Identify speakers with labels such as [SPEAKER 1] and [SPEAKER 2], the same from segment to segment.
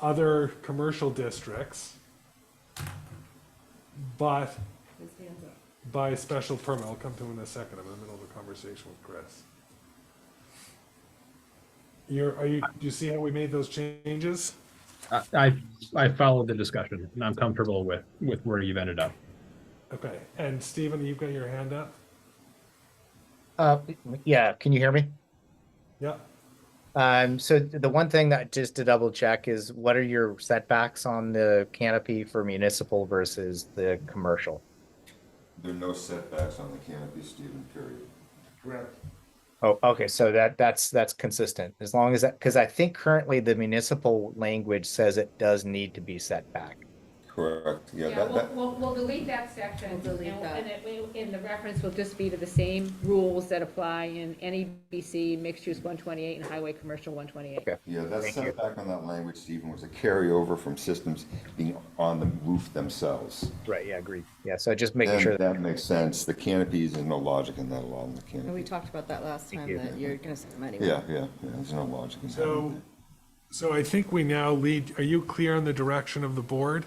[SPEAKER 1] other commercial districts, but
[SPEAKER 2] His hands up.
[SPEAKER 1] by special permit, I'll come to it in a second, I'm in the middle of a conversation with Chris. You're, are you, do you see how we made those changes?
[SPEAKER 3] I, I- I followed the discussion and I'm comfortable with, with where you've ended up.
[SPEAKER 1] Okay, and Stephen, you've got your hand up?
[SPEAKER 4] Uh, yeah, can you hear me?
[SPEAKER 1] Yeah,
[SPEAKER 4] Um, so the one thing that just to double check is what are your setbacks on the canopy for municipal versus the commercial?
[SPEAKER 5] There are no setbacks on the canopy, Stephen, period.
[SPEAKER 2] Correct.
[SPEAKER 4] Oh, okay, so that, that's, that's consistent, as long as that, because I think currently the municipal language says it does need to be set back.
[SPEAKER 5] Correct, yeah,
[SPEAKER 6] Yeah,
[SPEAKER 5] that,
[SPEAKER 6] we'll,
[SPEAKER 5] that,
[SPEAKER 6] we'll, we'll delete that section.
[SPEAKER 2] We'll delete
[SPEAKER 6] and-
[SPEAKER 2] that.
[SPEAKER 6] And it, will- and the reference will just be to the same rules that apply in NEBC, mixed use one twenty-eight, and highway commercial one twenty-eight.
[SPEAKER 4] Okay.
[SPEAKER 5] yeah, that
[SPEAKER 4] Thank you.
[SPEAKER 5] setback on that language, Stephen, was a carryover from systems being on the roof themselves.
[SPEAKER 4] Right, yeah, agreed. Yeah, so just making sure
[SPEAKER 5] And that
[SPEAKER 4] that,
[SPEAKER 5] makes sense, the canopies, there's no logic in that at all, in the
[SPEAKER 2] And
[SPEAKER 5] canopy.
[SPEAKER 2] we talked about that last
[SPEAKER 4] Thank
[SPEAKER 2] time,
[SPEAKER 4] you.
[SPEAKER 2] that you're gonna send them anyway.
[SPEAKER 5] Yeah, yeah, yeah, there's no logic in that.
[SPEAKER 1] so, so I think we now lead, are you clear on the direction of the board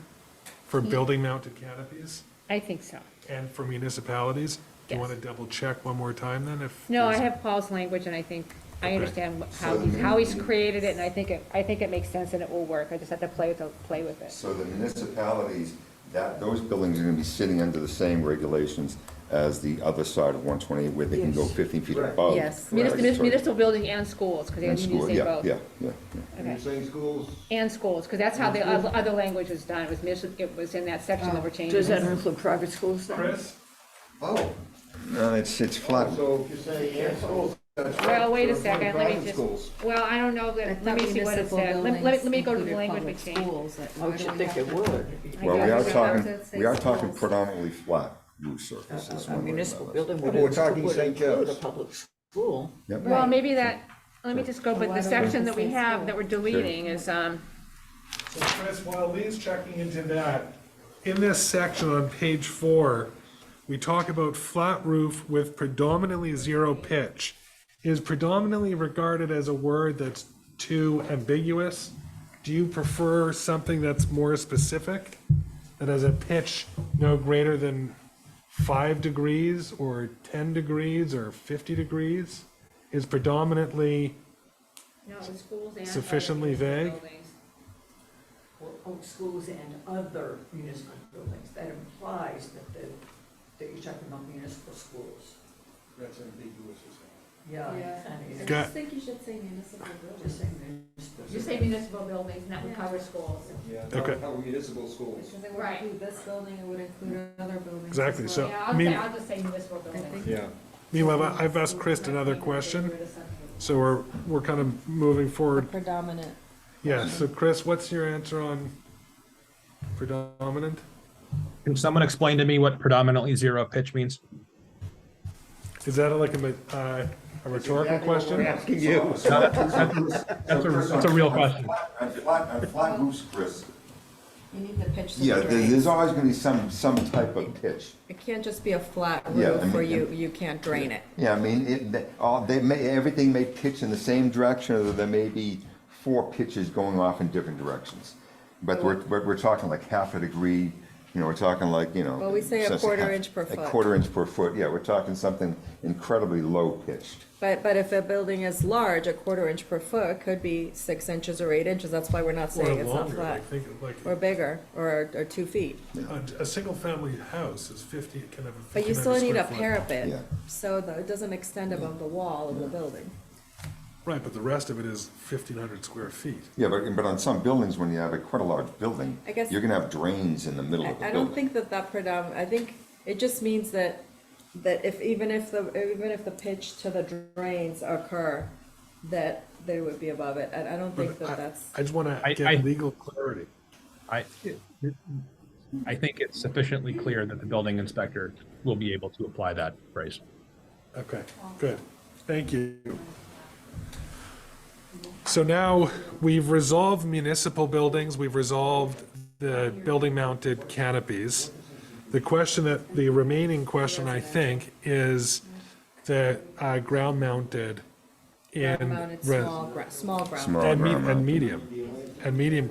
[SPEAKER 1] for
[SPEAKER 6] Mm-hmm.
[SPEAKER 1] building mounted canopies
[SPEAKER 6] I think so.
[SPEAKER 1] and for municipalities? Do you
[SPEAKER 6] Yes.
[SPEAKER 1] want to double check one more time then if?
[SPEAKER 6] No, I
[SPEAKER 1] there's-
[SPEAKER 6] have Paul's language, and I think, I
[SPEAKER 1] Okay.
[SPEAKER 6] understand what- how he's, how he's created it, and I think it, I think it makes sense and it will work. I just have to play with, the play with it.
[SPEAKER 5] So the municipalities, that, those buildings are gonna be sitting under the same regulations as the other side of one twenty, where they can go
[SPEAKER 2] Yes.
[SPEAKER 5] fifteen feet above.
[SPEAKER 2] Yes.
[SPEAKER 5] Right,
[SPEAKER 6] Municipal,
[SPEAKER 5] sorry.
[SPEAKER 6] municipal building and schools, because they
[SPEAKER 5] And
[SPEAKER 6] have to use
[SPEAKER 5] school,
[SPEAKER 6] they
[SPEAKER 5] yeah,
[SPEAKER 6] both.
[SPEAKER 5] yeah, yeah, yeah.
[SPEAKER 7] Are you saying schools?
[SPEAKER 6] And schools, because that's how the oth- other language was done. It was, mis- it was in that section that we're changing.
[SPEAKER 8] Does that include private schools then?
[SPEAKER 1] Chris?
[SPEAKER 7] Oh,
[SPEAKER 5] No, it's, it's flat.
[SPEAKER 7] so if you're saying and schools, that's.
[SPEAKER 6] Well, wait a
[SPEAKER 7] So
[SPEAKER 6] second, let
[SPEAKER 7] private
[SPEAKER 6] me just,
[SPEAKER 7] schools.
[SPEAKER 6] well, I don't know,
[SPEAKER 2] I
[SPEAKER 6] let let
[SPEAKER 2] thought
[SPEAKER 6] me see what it
[SPEAKER 2] municipal
[SPEAKER 6] said. Let- Let,
[SPEAKER 2] buildings
[SPEAKER 6] me- let me go to the
[SPEAKER 2] included
[SPEAKER 6] language we
[SPEAKER 2] public
[SPEAKER 6] changed.
[SPEAKER 2] schools, that-
[SPEAKER 8] I
[SPEAKER 9] Oh,
[SPEAKER 2] why
[SPEAKER 8] should
[SPEAKER 2] do we
[SPEAKER 8] think
[SPEAKER 2] have
[SPEAKER 8] it
[SPEAKER 2] to-
[SPEAKER 8] would.
[SPEAKER 5] Well, we
[SPEAKER 2] guess
[SPEAKER 5] are
[SPEAKER 2] it's
[SPEAKER 5] talking,
[SPEAKER 2] about to
[SPEAKER 5] we are
[SPEAKER 2] say
[SPEAKER 5] talking
[SPEAKER 2] schools.
[SPEAKER 5] predominantly flat roof surface. is
[SPEAKER 8] A
[SPEAKER 5] one way or
[SPEAKER 8] municipal
[SPEAKER 5] another.
[SPEAKER 8] building would
[SPEAKER 7] But we're talking
[SPEAKER 8] would
[SPEAKER 7] St.
[SPEAKER 8] include a
[SPEAKER 7] Joe's.
[SPEAKER 8] public school.
[SPEAKER 5] Yep.
[SPEAKER 6] Well, maybe that, let me just go, but
[SPEAKER 2] Why
[SPEAKER 6] the
[SPEAKER 2] don't we
[SPEAKER 6] section that
[SPEAKER 2] just
[SPEAKER 6] we
[SPEAKER 2] say
[SPEAKER 6] have, that
[SPEAKER 2] school?
[SPEAKER 6] we're deleting is, um,
[SPEAKER 1] So Chris, while Lee's checking into that, in this section on page four, we talk about flat roof with predominantly zero pitch. Is predominantly regarded as a word that's too ambiguous? Do you prefer something that's more specific? That has a pitch no greater than five degrees or ten degrees or fifty degrees? Is predominantly,
[SPEAKER 6] no, the schools and.
[SPEAKER 1] Sufficiently vague?
[SPEAKER 9] or own schools and other municipal buildings. That implies that the, that you're talking about municipal schools.
[SPEAKER 7] That's ambiguous as hell.
[SPEAKER 9] Yeah.
[SPEAKER 2] Yeah.
[SPEAKER 9] kinda
[SPEAKER 2] I
[SPEAKER 1] Got-
[SPEAKER 9] is.
[SPEAKER 2] just think you should say municipal buildings.
[SPEAKER 9] Just saying municipal.
[SPEAKER 6] You say municipal buildings, and that would cover schools.
[SPEAKER 7] Yeah,
[SPEAKER 1] Okay.
[SPEAKER 7] not- not municipal schools.
[SPEAKER 2] Because it would
[SPEAKER 6] Right.
[SPEAKER 2] include this building, it would include other buildings. as
[SPEAKER 1] Exactly,
[SPEAKER 2] well.
[SPEAKER 1] so-
[SPEAKER 6] Yeah, I'll
[SPEAKER 1] mean-
[SPEAKER 6] say, I'll just say municipal buildings.
[SPEAKER 2] think-
[SPEAKER 7] Yeah.
[SPEAKER 1] meanwhile, I- I've asked Chris another question. So we're, we're kind of moving forward.
[SPEAKER 2] Predominant.
[SPEAKER 1] Yeah, so Chris, what's your answer on predominant?
[SPEAKER 3] Can someone explain to me what predominantly zero pitch means?
[SPEAKER 1] Is that like a, ma- uh, a rhetorical
[SPEAKER 7] Exactly what we're
[SPEAKER 1] question?
[SPEAKER 7] asking you.
[SPEAKER 3] No, that's, that's- that's a, that's a real question.
[SPEAKER 5] And flat, and flat roofs, Chris.
[SPEAKER 2] You need the pitch. to
[SPEAKER 5] Yeah,
[SPEAKER 2] the
[SPEAKER 5] there-
[SPEAKER 2] drains.
[SPEAKER 5] there's always gonna be some, some type of pitch.
[SPEAKER 2] It can't just be a flat
[SPEAKER 5] Yeah, I
[SPEAKER 2] roof where
[SPEAKER 5] mean,
[SPEAKER 2] you,
[SPEAKER 5] and-
[SPEAKER 2] you can't drain it.
[SPEAKER 5] Yeah, I mean, it, they- all, they may, everything may pitch in the same direction, although there may be four pitches going off in different directions. But we're, but we're talking like half a degree, you know, we're talking like, you know.
[SPEAKER 2] Well, we say a
[SPEAKER 5] so- so
[SPEAKER 2] quarter
[SPEAKER 5] half-
[SPEAKER 2] inch per foot.
[SPEAKER 5] A quarter inch per foot, yeah, we're talking something incredibly low pitched.
[SPEAKER 2] But, but if a building is large, a quarter inch per foot could be six inches or eight inches, that's why we're not
[SPEAKER 1] Or
[SPEAKER 2] saying it's not
[SPEAKER 1] longer, I
[SPEAKER 2] flat.
[SPEAKER 1] think, like,
[SPEAKER 2] Or bigger, or, or two feet.
[SPEAKER 1] a, a single-family house is Oh, fifty, can have a
[SPEAKER 2] But you
[SPEAKER 1] 1,500
[SPEAKER 2] still need a
[SPEAKER 1] square foot.
[SPEAKER 2] parapet,
[SPEAKER 5] Yeah.
[SPEAKER 2] so the- it doesn't extend above the wall of the building.
[SPEAKER 1] Right, but the rest of it is fifteen hundred square feet.
[SPEAKER 5] Yeah, but, but on some buildings, when you have a quite a large building,
[SPEAKER 2] I guess-
[SPEAKER 5] you're gonna have drains in the middle
[SPEAKER 2] I,
[SPEAKER 5] of the
[SPEAKER 2] I
[SPEAKER 5] building.
[SPEAKER 2] don't think that that predomin, I think it just means that, that if, even if the, even if the pitch to the drains occur, that they would be above it, I, I don't think
[SPEAKER 1] But
[SPEAKER 2] that
[SPEAKER 1] I,
[SPEAKER 2] that's.
[SPEAKER 1] I just wanna
[SPEAKER 3] I- I-
[SPEAKER 1] get legal clarity.
[SPEAKER 3] I, I think it's sufficiently clear that the building inspector will be able to apply that phrase.
[SPEAKER 1] Okay, good. Thank you. So now we've resolved municipal buildings, we've resolved the building mounted canopies. The question that, the remaining question, I think, is the uh, ground mounted in.
[SPEAKER 2] Mounted
[SPEAKER 1] res-
[SPEAKER 2] small, gra- small ground.
[SPEAKER 5] Small
[SPEAKER 1] And me-
[SPEAKER 5] ground mount.
[SPEAKER 1] and medium, and medium